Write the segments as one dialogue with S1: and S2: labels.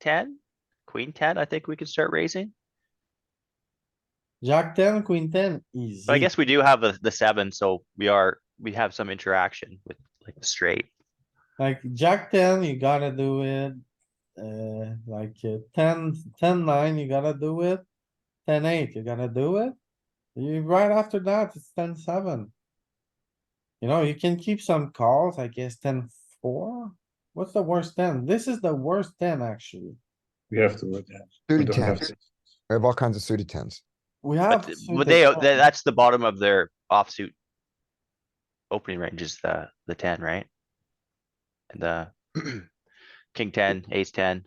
S1: ten, queen ten, I think we can start raising.
S2: Jack ten, queen ten, easy.
S1: But I guess we do have the, the seven, so we are, we have some interaction with like the straight.
S2: Like jack ten, you gotta do it. Uh, like uh, ten, ten nine, you gotta do it. Ten eight, you gotta do it. You, right after that, it's ten seven. You know, you can keep some calls, I guess ten four. What's the worst ten? This is the worst ten, actually.
S3: We have to, yeah. We
S4: Suited
S3: don't have
S4: tens.
S3: to.
S4: I have all kinds of suited tens.
S2: We
S1: But
S2: have.
S1: th-
S2: suited
S1: but they,
S2: tens.
S1: tha- that's the bottom of their offsuit. Opening range is the, the ten, right? And the king ten, ace ten,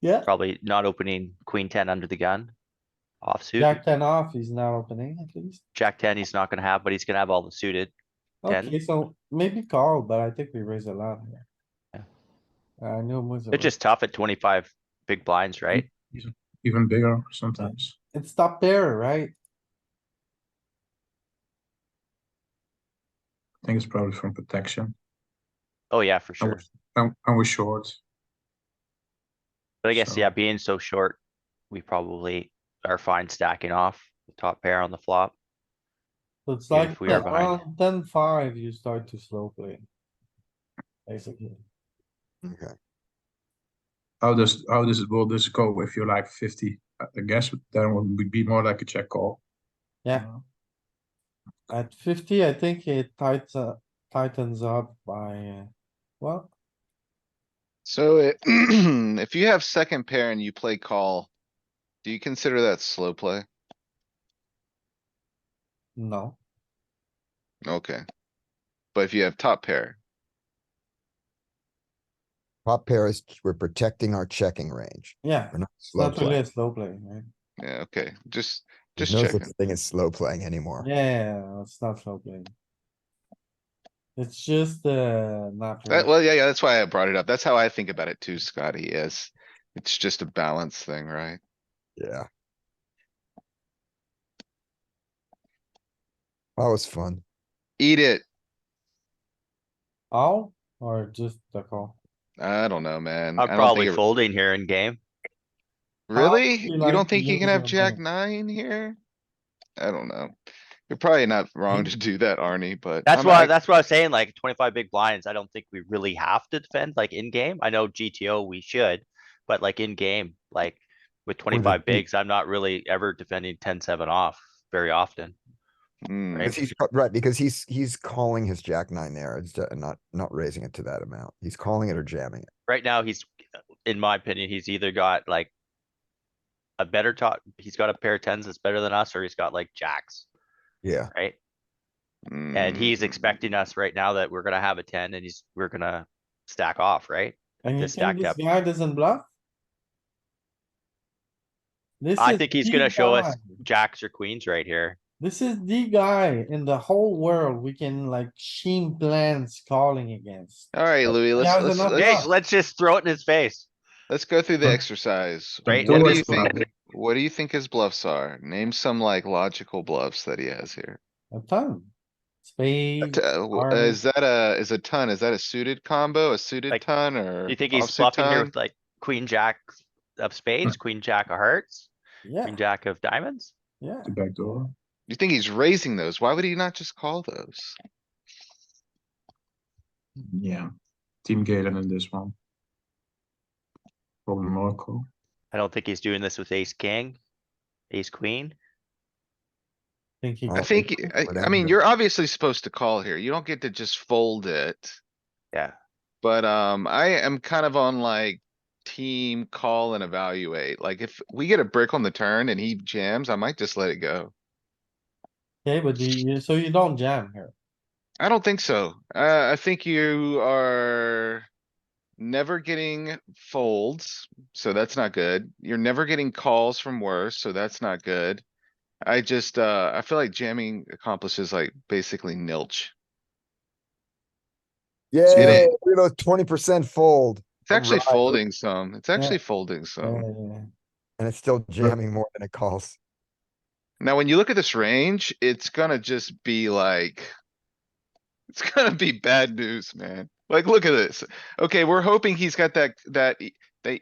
S2: Yeah,
S1: probably not opening queen ten under the gun. Offsuit,
S2: jack ten off, he's not opening at least.
S1: jack ten, he's not gonna have, but he's gonna have all the suited. 10.
S2: Okay, so maybe call, but I think we raise a lot here.
S1: Yeah.
S2: I know most of
S1: It's
S2: it.
S1: just tough at twenty-five big blinds, right?
S3: even bigger sometimes.
S2: It's top there, right?
S3: I think it's probably from protection.
S1: Oh, yeah, for sure.
S3: And, and we're short.
S1: But I guess,
S3: So-
S1: yeah, being so short, we probably are fine stacking off the top pair on the flop.
S2: So it's
S1: Yeah,
S2: like
S1: if we are behind.
S2: around ten five, you start to slow play. Basically,
S4: Okay,
S3: How does how does it will this go if you're like fifty? I I guess then it would be more like a check call.
S2: Yeah.
S3: Uh,
S2: at fifty, I think it tightens, up- tightens up by, uh, well,
S5: So it- if you have second pair and you play call, do you consider that slow play?
S2: no.
S5: Okay. But if you have top pair,
S4: top pair is, we're protecting our checking range.
S2: Yeah,
S4: We're not
S2: it's
S4: slow
S2: not really
S4: playing.
S2: a slow play, right?
S5: yeah, okay, just,
S4: There's
S5: just
S4: no such
S5: checking.
S4: thing as slow playing anymore.
S2: Yeah, it's not slow play. It's just, uh, not.
S5: That,
S2: really-
S5: well, yeah, yeah, that's why I brought it up. That's how I think about it too, Scotty, is it's just a balance thing, right?
S4: Yeah. That was fun.
S5: Eat it.
S2: All or just the call?
S5: I don't know, man. Mm, I
S1: I'm
S5: don't
S1: probably
S5: think it-
S1: folding here in game.
S5: Really?
S2: you
S5: You
S2: like
S5: don't
S2: to
S5: think you
S2: use
S5: can
S2: it
S5: have
S2: on
S5: jack
S2: purpose?
S5: nine here? I don't know. You're probably not wrong to do that, Arnie, but.
S1: That's
S5: I'm
S1: why,
S5: act-
S1: that's what I was saying, like twenty-five big blinds, I don't think we really have to defend, like in game. I know GTO we should, but like in game, like with twenty-five
S4: deep.
S1: bigs, I'm not really ever defending 10-7 off very often.
S5: Hmm.
S1: right?
S4: Because he's, ca- right, because he's, he's calling his jack nine there. It's ju- not, not raising it to that amount. He's calling it or jamming it.
S1: Right now, he's, in my opinion, he's either got like a better top, he's got a pair of tens that's better than us, or he's got like jacks,
S4: Yeah,
S1: right? And
S5: mm. Mm-hmm.
S1: he's expecting us right now that we're gonna have a ten and he's, we're gonna stack off, right?
S2: And you
S1: Just
S2: think
S1: stacked
S2: this
S1: up.
S2: guy doesn't bluff? This
S1: I
S2: is
S1: think he's
S2: the
S1: gonna show us
S2: guy.
S1: jacks or queens right here.
S2: This is the guy in the whole world we can like sheen plans calling against.
S5: Alright, Louis, let's,
S2: how's
S5: let's,
S2: enough
S5: let's,
S1: Jake,
S2: Yeah.
S1: let's just throw it in his face.
S5: let's go through the
S3: Huh?
S5: exercise.
S1: Right,
S5: What
S1: and
S5: do
S1: this
S5: you
S1: one.
S5: think, what do you think his bluffs are? Name some like logical bluffs that he has here.
S2: A ton.
S5: A
S2: Spade,
S5: t- uh, w-
S2: are-
S5: uh, Is that a, is a ton? Is that a suited combo, a suited
S1: Like,
S5: ton or?
S1: You think he's
S5: offsuit
S1: bluffing here
S5: ton?
S1: with like queen jack of spades, queen jack of hearts,
S2: yeah,
S1: queen jack of diamonds?
S2: yeah.
S3: The back door.
S5: You think he's raising those? Why would he not just call those?
S3: Yeah. Team Galen in this one. Probably Morocco.
S1: I don't think he's doing this with ace king, ace queen.
S2: Think he
S4: I
S5: I
S4: Okay.
S2: calls.
S5: think, y- I, I
S4: Whatever.
S5: mean, you're obviously supposed to call here. You don't get to just fold it.
S1: Yeah.
S5: But, um, I am kind of on like team call and evaluate. Like if we get a brick on the turn and he jams, I might just let it go.
S2: Okay, but do you, so you don't jam here.
S5: I don't think so. Uh, I think you are never getting folds, so that's not good. You're never getting calls from worse, so that's not good. I just, uh, I feel like jamming accomplishes like basically nilch.
S4: yeah, you know, twenty percent fold
S5: It's actually
S4: Alright.
S5: folding some. It's actually folding some.
S2: Uh,
S4: and it's still jamming more than it calls.
S5: Now, when you look at this range, it's gonna just be like. It's gonna be bad news, man. Like, look at this. Okay, we're hoping he's got that, that e-